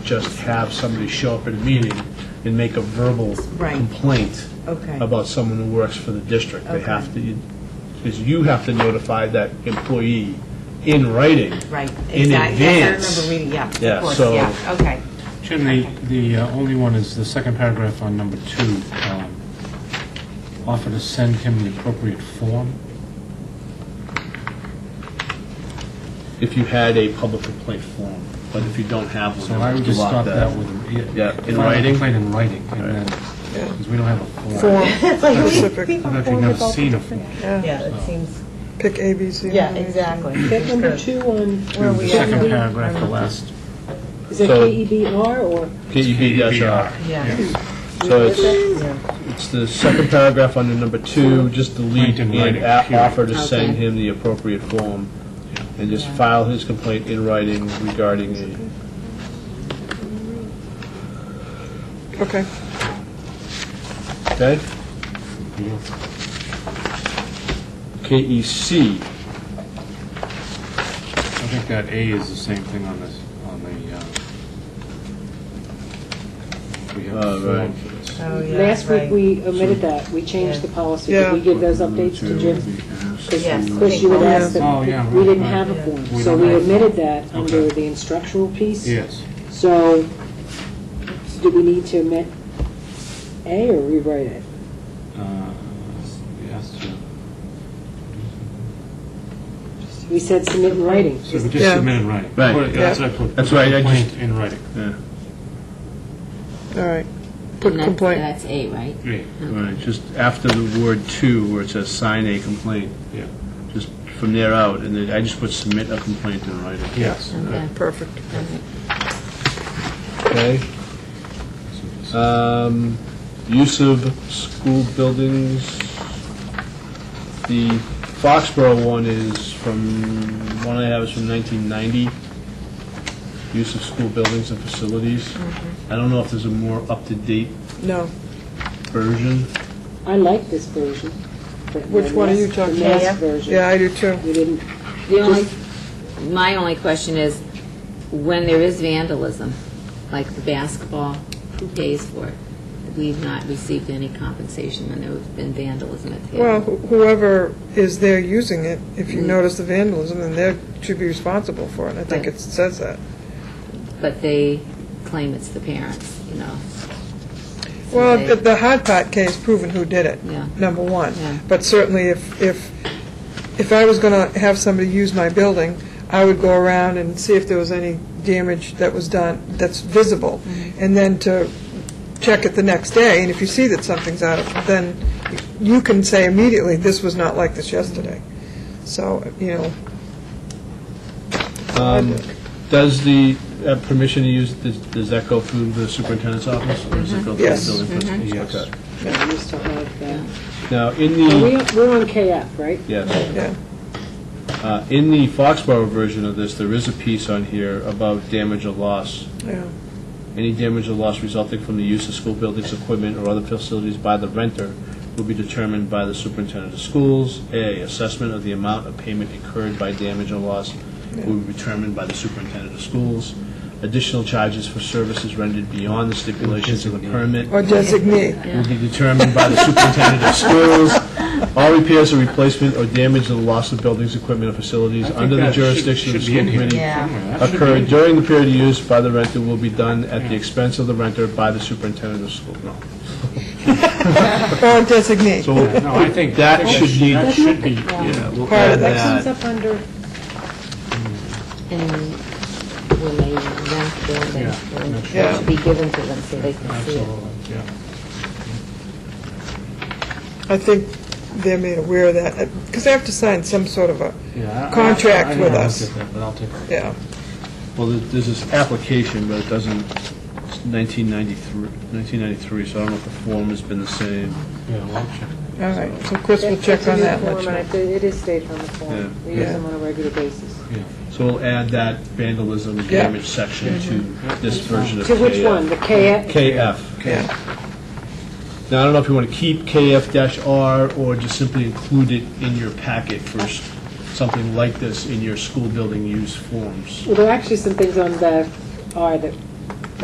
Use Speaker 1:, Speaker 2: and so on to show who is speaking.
Speaker 1: just have somebody show up at a meeting and make a verbal
Speaker 2: Right.
Speaker 1: complaint
Speaker 2: Okay.
Speaker 1: about someone who works for the district. They
Speaker 2: Okay.
Speaker 1: have to, because you have to notify that employee in writing.
Speaker 2: Right,
Speaker 1: In
Speaker 2: exactly. Yes,
Speaker 1: advance.
Speaker 2: I remember reading, yeah, of
Speaker 1: Yeah,
Speaker 2: course,
Speaker 1: so-
Speaker 2: yeah, okay.
Speaker 3: Jim, the, the uh, only one is the second paragraph on number two, um, offer to send him the appropriate form.
Speaker 1: If you had a public complaint form, but if you don't have one,
Speaker 3: So I would
Speaker 1: you
Speaker 3: just
Speaker 1: lock
Speaker 3: stop that
Speaker 1: that.
Speaker 3: with, a-
Speaker 1: Yeah,
Speaker 3: yeah.
Speaker 1: in
Speaker 3: file a
Speaker 1: writing?
Speaker 3: complaint in writing, and then, because we don't have a form.
Speaker 2: It's like,
Speaker 3: I've actually never seen a form.
Speaker 2: Yeah, it seems,
Speaker 4: Pick A, B, C.
Speaker 2: yeah, exactly.
Speaker 5: That number two on, where are
Speaker 3: The
Speaker 5: we at?
Speaker 3: second paragraph, the last.
Speaker 5: Is it
Speaker 1: So- E
Speaker 5: KEBR or?
Speaker 1: KEB-R.
Speaker 2: Yeah,
Speaker 1: So it's, it's the second paragraph under number two, just delete
Speaker 3: Complaint in
Speaker 1: and
Speaker 3: writing,
Speaker 1: a-
Speaker 3: period.
Speaker 1: offer to send
Speaker 2: Okay.
Speaker 1: him the appropriate form, and just file his complaint in writing regarding a,
Speaker 4: Okay.
Speaker 1: okay? E KEC,
Speaker 3: I think that A is the same thing on this, on the, uh, we have
Speaker 1: Oh,
Speaker 3: the form
Speaker 1: right.
Speaker 3: for this.
Speaker 2: oh, yeah,
Speaker 5: Last week,
Speaker 2: right.
Speaker 5: we omitted that, we changed the policy, did we
Speaker 4: Yeah.
Speaker 5: give those updates to Jim?
Speaker 2: Yes.
Speaker 5: Chris, you would ask
Speaker 3: Oh, yeah,
Speaker 5: them, we didn't
Speaker 3: right.
Speaker 5: have a form,
Speaker 3: We
Speaker 5: so
Speaker 3: don't
Speaker 5: we
Speaker 3: have-
Speaker 5: omitted that under
Speaker 3: Okay.
Speaker 5: the instructional piece.
Speaker 3: Yes.
Speaker 5: So, do we need to omit A or rewrite it?
Speaker 3: Uh, Yes, Jim.
Speaker 5: We said submit in writing.
Speaker 3: So we just
Speaker 4: Yeah.
Speaker 3: submitted in writing.
Speaker 1: Right.
Speaker 3: Put it- That's
Speaker 4: Yeah.
Speaker 3: what I put.
Speaker 1: That's right, I just-
Speaker 3: Complaint in writing.
Speaker 4: All right. Put
Speaker 6: And that's-
Speaker 4: complaint.
Speaker 6: That's eight, right?
Speaker 3: Yeah.
Speaker 1: right, just after the word two, where it says sign a complaint,
Speaker 3: Yeah.
Speaker 1: just from there out, and then I just put submit a complaint in writing.
Speaker 3: Yes.
Speaker 6: Okay.
Speaker 4: Perfect.
Speaker 1: Okay. Um, Use of school buildings. The Foxborough one is from, one I have is from 1990. Use of school buildings and facilities.
Speaker 5: Mm-hmm.
Speaker 1: I don't know if there's a more up-to-date
Speaker 4: No.
Speaker 1: version.
Speaker 5: I like this version. but
Speaker 4: Which
Speaker 5: the
Speaker 4: one are
Speaker 5: last-
Speaker 4: you talking
Speaker 5: The last
Speaker 2: about?
Speaker 5: version.
Speaker 4: Yeah, I do too.
Speaker 5: We didn't,
Speaker 6: The only, my only question is, when there is vandalism, like the basketball, who pays for it? We've not received any compensation when there's been vandalism at the
Speaker 4: Well,
Speaker 6: field.
Speaker 4: wh- whoever is there using it, if you notice the vandalism, then they should be responsible for it. I think
Speaker 6: Right.
Speaker 4: it says that.
Speaker 6: But they claim it's the parents, you know. So
Speaker 4: Well,
Speaker 6: they-
Speaker 4: the- the hot pot case proven who did it,
Speaker 6: Yeah.
Speaker 4: number one.
Speaker 6: Yeah.
Speaker 4: But certainly, if, if, if I was going to have somebody use my building, I would go around and see if there was any damage that was done, that's visible,
Speaker 6: Mm-hmm.
Speaker 4: and then to check it the next day, and if you see that something's out of, then you can say immediately, this was not like this yesterday. So, you know,
Speaker 1: Um, Does the uh, permission to use, does does that go through the superintendent's office? Or
Speaker 5: Mm-hmm.
Speaker 1: does it go through the
Speaker 4: Yes.
Speaker 1: building principal's?
Speaker 3: Yes.
Speaker 1: Okay.
Speaker 5: we used to have that.
Speaker 1: Now, in
Speaker 3: Hmm.
Speaker 5: Well,
Speaker 1: the,
Speaker 5: we- We're on KF, right?
Speaker 1: yes.
Speaker 4: yeah.
Speaker 1: Uh, In the Foxborough version of this, there is a piece on here about damage or loss.
Speaker 4: Yeah.
Speaker 1: Any damage or loss resulting from the use of school buildings, equipment, or other facilities by the renter will be determined by the superintendent of schools. A, assessment of the amount of payment incurred by damage or loss will be determined by the superintendent of schools. Additional charges for services rendered beyond the stipulations of the permit
Speaker 4: Or designate.
Speaker 1: will be determined by the superintendent of schools. All repairs or replacement or damage or loss of buildings, equipment, or facilities under the jurisdiction of the school committee occurred during the period of use by the renter will be done at the expense of the renter by the superintendent of school. No.
Speaker 4: Or designate.
Speaker 1: So
Speaker 3: No, I think.
Speaker 1: that should need,
Speaker 3: That should be,
Speaker 1: yeah, we'll
Speaker 4: Part
Speaker 1: add
Speaker 4: of that
Speaker 5: That comes
Speaker 1: that.
Speaker 5: up under,
Speaker 6: And when they rent the
Speaker 3: Yeah,
Speaker 6: building, it
Speaker 4: Yeah.
Speaker 6: should be given to them so they can see it.
Speaker 3: absolutely, yeah.
Speaker 4: I think they're made aware of that, because they have to sign some sort of a,
Speaker 3: yeah. I- I-
Speaker 4: Contract
Speaker 3: I- I
Speaker 4: with
Speaker 3: haven't
Speaker 4: us.
Speaker 3: looked at that, But I'll take a look.
Speaker 4: yeah.
Speaker 1: Well, there- there's this application, but it doesn't, it's 1993, 1993, so I don't know if the form has been the same.
Speaker 3: Yeah, well, I'll check.
Speaker 4: All right, so Chris will check on that. let you know.
Speaker 5: It is stated on the form.
Speaker 1: Yeah.
Speaker 5: We use them on a regular basis.
Speaker 1: So we'll add that vandalism and
Speaker 4: Yeah.
Speaker 1: damage section to this version of
Speaker 5: To which
Speaker 1: KF.
Speaker 5: one? The KF?
Speaker 1: KF.
Speaker 4: Yeah.
Speaker 1: Now, I don't know if you want to keep KF-R or just simply include it in your packet for s- something like this in your school building use forms.
Speaker 5: Well, there are actually some things on the R that